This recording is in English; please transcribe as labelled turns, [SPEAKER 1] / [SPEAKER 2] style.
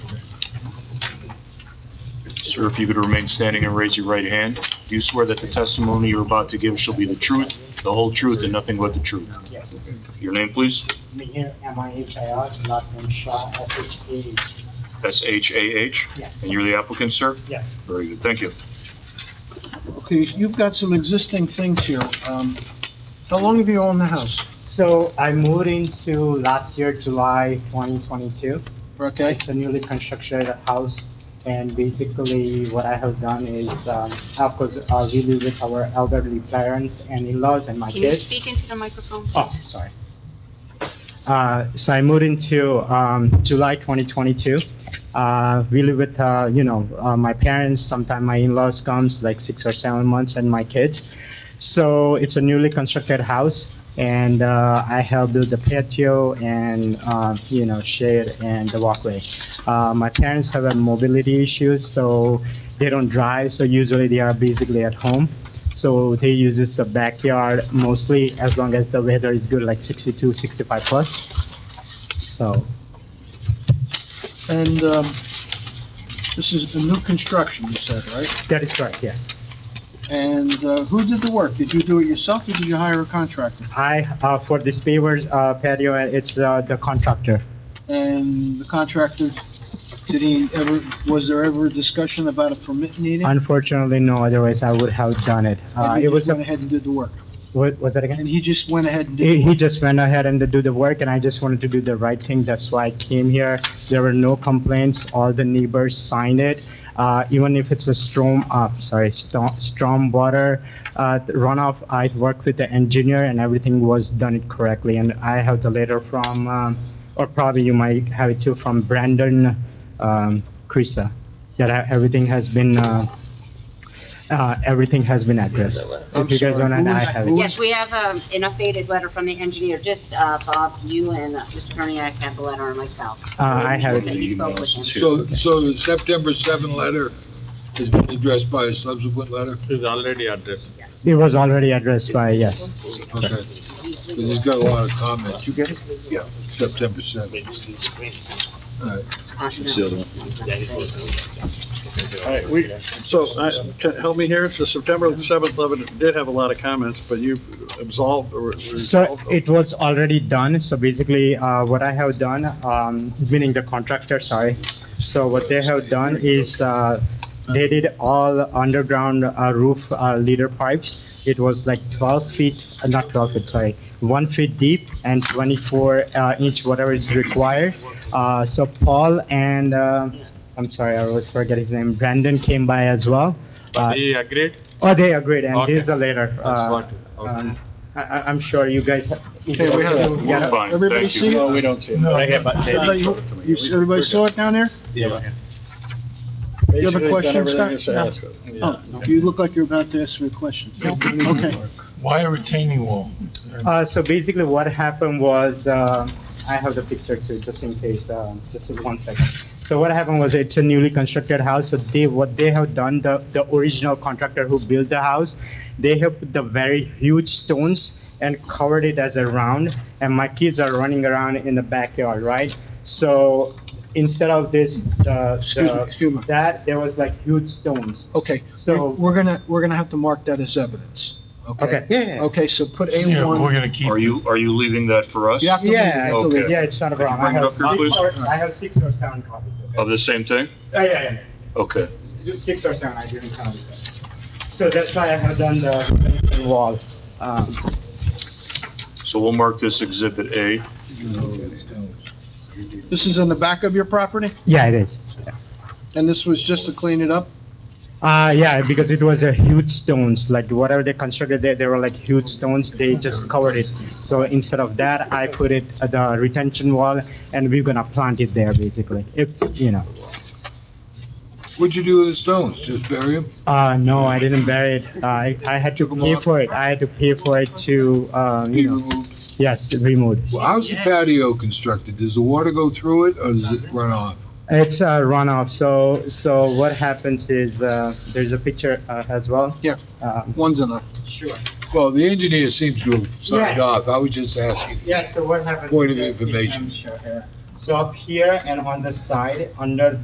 [SPEAKER 1] Sir, if you could remain standing and raise your right hand. Do you swear that the testimony you're about to give shall be the truth, the whole truth, and nothing but the truth?
[SPEAKER 2] Yes.
[SPEAKER 1] Your name, please?
[SPEAKER 2] Mihir, M-I-H-I-R, last name Shah, S-H-A,
[SPEAKER 1] S-H-A-H?
[SPEAKER 2] yes,
[SPEAKER 1] And you're the applicant, sir?
[SPEAKER 2] yes.
[SPEAKER 1] Very good, thank you.
[SPEAKER 3] Okay, you've got some existing things here. Um, how long have you owned the house?
[SPEAKER 2] So I moved into last year, July 2022.
[SPEAKER 3] Okay,
[SPEAKER 2] It's a newly constructed house, and basically what I have done is, um, of course, uh, we live with our elderly parents and in-laws and my
[SPEAKER 4] Can you
[SPEAKER 2] kids.
[SPEAKER 4] speak into the microphone?
[SPEAKER 2] Oh, sorry. Uh, so I moved into, um, July 2022. Uh, we live with, uh, you know, uh, my parents, sometime my in-laws comes, like six or seven months, and my kids. So it's a newly constructed house, and, uh, I have built the patio and, uh, you know, shade and the walkway. Uh, my parents have a mobility issues, so they don't drive, so usually they are basically at home. So they uses the backyard mostly as long as the weather is good, like 62, 65 plus. So,
[SPEAKER 3] and, um, this is a new construction, you said, right?
[SPEAKER 2] that is correct, yes.
[SPEAKER 3] And, uh, who did the work? Did you do it yourself or did you hire a contractor?
[SPEAKER 2] I, uh, for this paver, uh, patio, it's, uh, the contractor.
[SPEAKER 3] And the contractor, did he ever, was there ever a discussion about a permit needed?
[SPEAKER 2] Unfortunately, no, otherwise I would have done it. Uh,
[SPEAKER 3] And
[SPEAKER 2] it
[SPEAKER 3] he just
[SPEAKER 2] was,
[SPEAKER 3] went
[SPEAKER 2] a-
[SPEAKER 3] ahead and did the work?
[SPEAKER 2] what, was that again?
[SPEAKER 3] And he just went ahead and did
[SPEAKER 2] He,
[SPEAKER 3] the work?
[SPEAKER 2] he just went ahead and do the work and I just wanted to do the right thing, that's why I came here. There were no complaints, all the neighbors signed it. Uh, even if it's a storm, uh, sorry, storm, storm water, uh, runoff, I worked with the engineer and everything was done it correctly. And I have the letter from, um, or probably you might have it too, from Brandon, um, Crisa, that I- everything has been, uh, uh, everything has been addressed.
[SPEAKER 3] I'm
[SPEAKER 2] If you guys
[SPEAKER 3] sorry,
[SPEAKER 2] want,
[SPEAKER 3] who
[SPEAKER 2] I
[SPEAKER 3] was-
[SPEAKER 2] have
[SPEAKER 3] who
[SPEAKER 2] it.
[SPEAKER 4] Yes, we have um, an updated letter from the engineer, just uh, Bob, you and uh, Mr. Perniak have the letter and myself.
[SPEAKER 2] Uh, I have it.
[SPEAKER 4] That you spoke with him.
[SPEAKER 5] So, so the September 7 letter has been addressed by a subsequent letter?
[SPEAKER 6] is already addressed.
[SPEAKER 2] It was already addressed by, yes.
[SPEAKER 5] Okay, because he's got a lot of comments. You get it? Yeah. September 7. All right.
[SPEAKER 4] Uh, no.
[SPEAKER 7] All right, we, so, I- can- help me here, the September 7th letter did have a lot of comments, but you absolved or
[SPEAKER 2] So
[SPEAKER 7] resolved?
[SPEAKER 2] it was already done, so basically, uh, what I have done, um, meaning the contractor, sorry. So what they have done is, uh, they did all underground uh, roof, uh, leader pipes. It was like twelve feet, uh, not twelve feet, sorry, one feet deep and twenty-four, uh, inch, whatever is required. Uh, so Paul and, uh, I'm sorry, I always forget his name, Brandon came by as well. Uh,
[SPEAKER 6] He agreed?
[SPEAKER 2] Oh, they agreed, and
[SPEAKER 6] Okay.
[SPEAKER 2] this is a letter.
[SPEAKER 6] That's
[SPEAKER 2] uh,
[SPEAKER 6] what-
[SPEAKER 2] um, I, I- I'm sure you guys. have-
[SPEAKER 3] Okay, we have-
[SPEAKER 1] We're
[SPEAKER 2] Yeah.
[SPEAKER 1] fine,
[SPEAKER 3] Everybody
[SPEAKER 1] thank you.
[SPEAKER 3] see it?
[SPEAKER 5] we don't see
[SPEAKER 3] No.
[SPEAKER 6] Okay, but they-
[SPEAKER 3] Everybody- you- Everybody saw it down there? You have a question, Scott? Oh, you look like you're about to ask me a question. Okay.
[SPEAKER 5] Why a retaining wall?
[SPEAKER 2] Uh, so basically what happened was, uh, I have the picture too, just in case, uh, just in one second. So what happened was it's a newly constructed house, so they, what they have done, the, the original contractor who built the house, they have put the very huge stones and covered it as a round, and my kids are running around in the backyard, right? So instead of this, uh,
[SPEAKER 3] Excuse me,
[SPEAKER 2] the-
[SPEAKER 3] excuse me.
[SPEAKER 2] that, there was like huge stones.
[SPEAKER 3] Okay,
[SPEAKER 2] So-
[SPEAKER 3] we're we're gonna, we're gonna have to mark that as evidence, okay?
[SPEAKER 2] yeah.
[SPEAKER 3] Okay, so put A1.
[SPEAKER 5] gonna keep.
[SPEAKER 1] Are you, are you leaving that for us?
[SPEAKER 3] You have to leave it, you have to
[SPEAKER 1] Okay.
[SPEAKER 3] leave it.
[SPEAKER 2] Yeah, it's not a
[SPEAKER 1] Could you
[SPEAKER 2] problem. I
[SPEAKER 1] bring it
[SPEAKER 2] have
[SPEAKER 1] up here,
[SPEAKER 2] six
[SPEAKER 1] please?
[SPEAKER 2] or, I have six or seven copies of it.
[SPEAKER 1] Of the same thing?
[SPEAKER 2] Yeah, yeah,
[SPEAKER 1] Okay.
[SPEAKER 2] yeah. Just six or seven, I didn't count it. So that's why I have done the wall. Um,
[SPEAKER 1] So we'll mark this Exhibit A.
[SPEAKER 3] This is in the back of your property,
[SPEAKER 2] Yeah, it is.
[SPEAKER 3] and this was just to clean it up?
[SPEAKER 2] Uh, yeah, because it was a huge stones, like whatever they constructed there, they were like huge stones, they just covered it. So instead of that, I put it at the retention wall and we're gonna plant it there basically, if, you know.
[SPEAKER 5] What'd you do with the stones? Just bury them?
[SPEAKER 2] Uh, no, I didn't bury it. I, I had to pay for it. I had to pay for it to, um, you know, yes, removed.
[SPEAKER 5] Well, how's the patio constructed? Does the water go through it or does it run off?
[SPEAKER 2] It's a runoff, so, so what happens is, uh, there's a picture, uh, as well.
[SPEAKER 3] Yeah.
[SPEAKER 2] Um,
[SPEAKER 3] One's enough.
[SPEAKER 5] Well, the engineer seems to have signed
[SPEAKER 2] Yeah.
[SPEAKER 5] off. I was just asking.
[SPEAKER 2] Yeah, so what happens?
[SPEAKER 5] Point of
[SPEAKER 2] is-
[SPEAKER 5] information.
[SPEAKER 2] So up here and on the side, under